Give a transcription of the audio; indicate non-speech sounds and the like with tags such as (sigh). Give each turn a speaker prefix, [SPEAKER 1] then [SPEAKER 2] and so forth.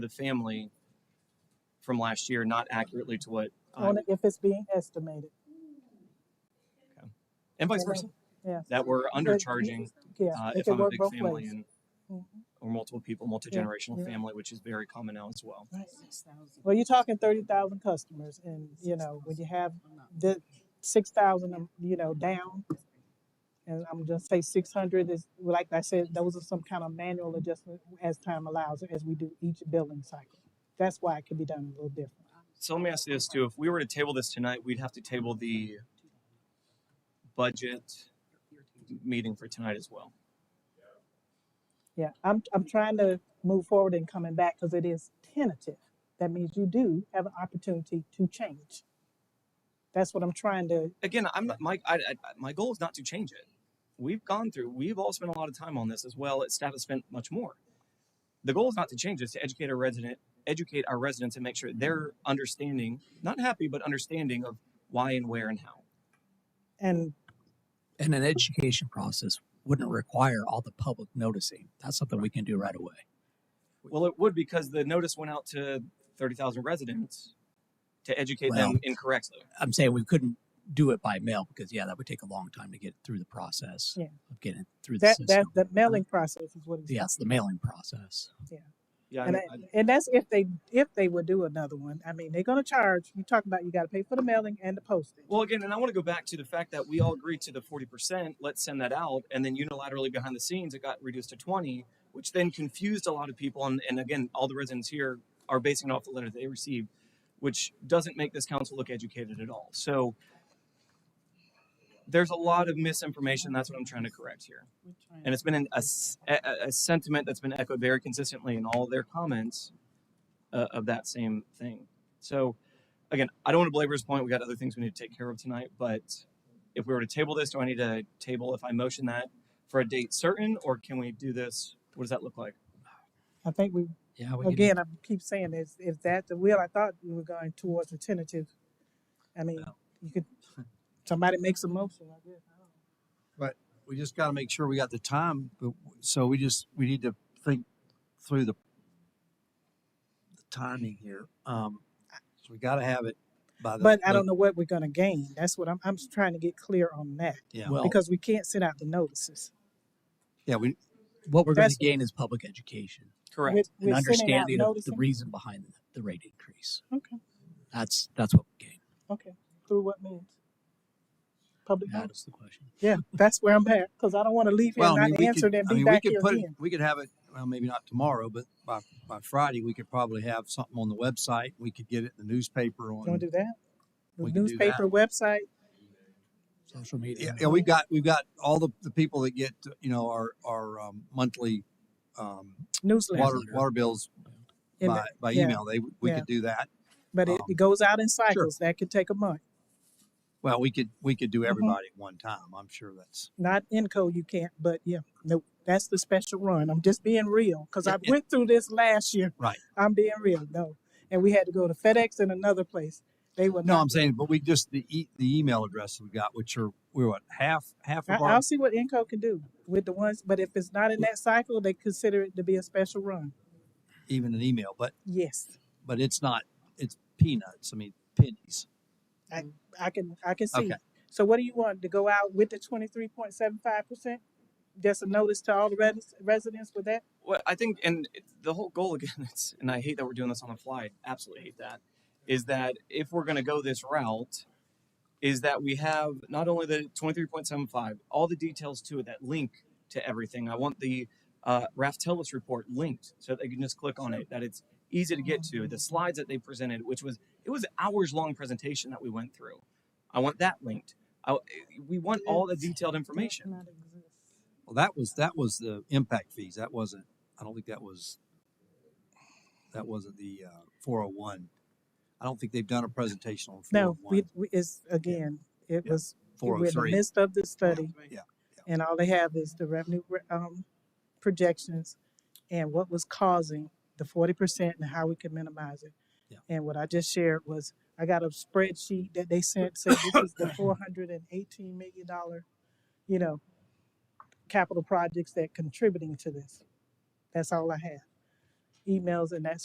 [SPEAKER 1] the family from last year, not accurately to what, uh, I'm-
[SPEAKER 2] only if it's being estimated.
[SPEAKER 1] and vice versa,
[SPEAKER 2] Yeah.
[SPEAKER 1] that we're undercharging
[SPEAKER 2] Yeah.
[SPEAKER 1] uh,
[SPEAKER 2] it
[SPEAKER 1] if
[SPEAKER 2] can
[SPEAKER 1] I'm a
[SPEAKER 2] work
[SPEAKER 1] big
[SPEAKER 2] both
[SPEAKER 1] family
[SPEAKER 2] ways.
[SPEAKER 1] and
[SPEAKER 2] Mhm.
[SPEAKER 1] or multiple people, multi-generational
[SPEAKER 2] yeah.
[SPEAKER 1] family, which is very common now as well.
[SPEAKER 2] Well, you're talking thirty thousand customers and, you know, when you have the six thousand, um, you know, down. And I'm just say six hundred is, like I said, those are some kind of manual adjustment as time allows, as we do each billing cycle. That's why it can be done a little different.
[SPEAKER 1] So let me ask you this too: If we were to table this tonight, we'd have to table the budget meeting for tonight as well.
[SPEAKER 2] Yeah, I'm, I'm trying to move forward and coming back because it is tentative. That means you do have an opportunity to change. That's what I'm trying to,
[SPEAKER 1] Again, I'm not my I, I, my goal is not to change it. We've gone through. We've all spent a lot of time on this as well. As staff has spent much more. The goal is not to change this; to educate our resident, educate our residents, and make sure they're understanding, not happy, but understanding of why and where and how.
[SPEAKER 2] and
[SPEAKER 3] And an education process wouldn't require all the public noticing. That's something we can do right away.
[SPEAKER 1] Well, it would because the notice went out to thirty thousand residents to educate
[SPEAKER 3] Well,
[SPEAKER 1] them incorrectly.
[SPEAKER 3] I'm saying we couldn't do it by mail because yeah, that would take a long time to get through the process
[SPEAKER 2] Yeah.
[SPEAKER 3] of getting through the
[SPEAKER 2] that, that,
[SPEAKER 3] system.
[SPEAKER 2] the mailing process is what it's.
[SPEAKER 3] yeah, it's the mailing process.
[SPEAKER 1] Yeah, I
[SPEAKER 2] And,
[SPEAKER 1] mean, I-
[SPEAKER 2] that- and that's if they, if they would do another one. I mean, they're gonna charge, you talk about you gotta pay for the mailing and the postage.
[SPEAKER 1] Well, again, and I want to go back to the fact that we all agreed to the forty percent. Let's send that out, and then unilaterally behind the scenes, it got reduced to twenty, which then confused a lot of people. And, and again, all the residents here are basing it off the letter they received, which doesn't make this council look educated at all. So there's a lot of misinformation. That's what I'm trying to correct here, and it's been an, a, s- a- a sentiment that's been echoed very consistently in all their comments uh, of that same thing. So again, I don't want to belabor his point. We got other things we need to take care of tonight. But if we were to table this, do I need to table if I motion that for a date certain, or can we do this? What does that look like?
[SPEAKER 2] I think we,
[SPEAKER 3] Yeah, we
[SPEAKER 2] again, I keep saying this, if that's the will, I thought we were going towards a tentative. I mean, you could, somebody makes a motion, I guess. I don't know.
[SPEAKER 4] we just got to make sure we got the time. But so we just we need to think through the, the timing here. Um, so we got to have it by the.
[SPEAKER 2] But I don't know what we're gonna gain. That's what I'm, I'm just trying to get clear on that.
[SPEAKER 4] Yeah,
[SPEAKER 3] Well,
[SPEAKER 2] Because we can't send out the notices.
[SPEAKER 4] yeah. We
[SPEAKER 3] what we're going to
[SPEAKER 2] that's-
[SPEAKER 3] gain is public education
[SPEAKER 1] Correct.
[SPEAKER 2] We're-
[SPEAKER 3] and
[SPEAKER 2] we're sending out
[SPEAKER 3] understanding of the
[SPEAKER 2] noticing-
[SPEAKER 3] reason behind the, the rate increase.
[SPEAKER 2] Okay,
[SPEAKER 3] That's that's what we gain.
[SPEAKER 2] okay. Through what means? Public
[SPEAKER 3] That
[SPEAKER 2] notice.
[SPEAKER 3] is the question.
[SPEAKER 2] Yeah, that's where I'm at, because I don't want to leave here
[SPEAKER 4] well,
[SPEAKER 2] and
[SPEAKER 4] I mean,
[SPEAKER 2] not
[SPEAKER 4] we
[SPEAKER 2] answered
[SPEAKER 4] could,
[SPEAKER 2] and
[SPEAKER 4] I
[SPEAKER 2] be
[SPEAKER 4] mean, we
[SPEAKER 2] back
[SPEAKER 4] could
[SPEAKER 2] here
[SPEAKER 4] put it,
[SPEAKER 2] again.
[SPEAKER 4] we could have it. Well, maybe not tomorrow, but by by Friday we could probably have something on the website. We could get it in the newspaper
[SPEAKER 2] You wanna
[SPEAKER 4] on.
[SPEAKER 2] do that? The
[SPEAKER 4] we can do that.
[SPEAKER 2] newspaper, website,
[SPEAKER 3] Social media.
[SPEAKER 4] Yeah, yeah, we've got we've got all the, the people that get you know our our um, monthly um,
[SPEAKER 2] newsletter.
[SPEAKER 4] water water bills
[SPEAKER 2] in
[SPEAKER 4] by,
[SPEAKER 2] the-
[SPEAKER 4] by
[SPEAKER 2] yeah,
[SPEAKER 4] email. They we
[SPEAKER 2] yeah.
[SPEAKER 4] could do that.
[SPEAKER 2] But
[SPEAKER 4] um,
[SPEAKER 2] it it goes out in cycles. That could take a month.
[SPEAKER 4] Well, we could, we could
[SPEAKER 2] Mm-hmm.
[SPEAKER 4] do everybody at one time. I'm sure that's,
[SPEAKER 2] Not Enco, you can't, but yeah, no, that's the special run. I'm just being real, because
[SPEAKER 4] Yeah,
[SPEAKER 2] I
[SPEAKER 4] yeah.
[SPEAKER 2] went through this last year.
[SPEAKER 4] Right.
[SPEAKER 2] I'm being real, no. And we had to go to FedEx and another place. They were
[SPEAKER 4] no,
[SPEAKER 2] not
[SPEAKER 4] I'm saying, but we just, the e, the email addresses we got, which are, we're what, half, half
[SPEAKER 2] I,
[SPEAKER 4] of our,
[SPEAKER 2] I'll see what Enco can do with the ones, but if it's not in that cycle, they consider it to be a special run.
[SPEAKER 4] even an email, but,
[SPEAKER 2] Yes,
[SPEAKER 4] but it's not, it's peanuts. I mean, pennies.
[SPEAKER 2] I can, I can see.
[SPEAKER 4] Okay.
[SPEAKER 2] So what do you want to go out with the twenty-three point seven five percent? Just a notice to all the res- residents with that?
[SPEAKER 1] Well, I think, and it- the whole goal (laughs) again, it's, and I hate that we're doing this on the fly. Absolutely hate that. Is that if we're going to go this route, is that we have not only the 23.75, all the details to it that link to everything. I want the uh, Raftellus report linked so that they can just click on it, that it's easy to get to. The slides that they presented, which was it was hours long presentation that we went through. I want that linked. I, we want all the detailed information.
[SPEAKER 4] Well, that was, that was the impact fees. That wasn't, I don't think that was, that wasn't the, uh, four oh one. I don't think they've done a presentation on
[SPEAKER 2] No, we,
[SPEAKER 4] 401,
[SPEAKER 2] we, it's, again, it
[SPEAKER 4] Yeah.
[SPEAKER 2] was, we're in the
[SPEAKER 4] 403.
[SPEAKER 2] midst of the study.
[SPEAKER 4] Yeah, yeah.
[SPEAKER 2] And all they have is the revenue, re- um, projections and what was causing the forty percent and how we could minimize it.
[SPEAKER 4] Yeah.
[SPEAKER 2] And what I just shared was, I got a spreadsheet that they sent, said this is the four hundred and eighteen million dollar, you know, capital projects that contributing to this. That's all I have. Emails and that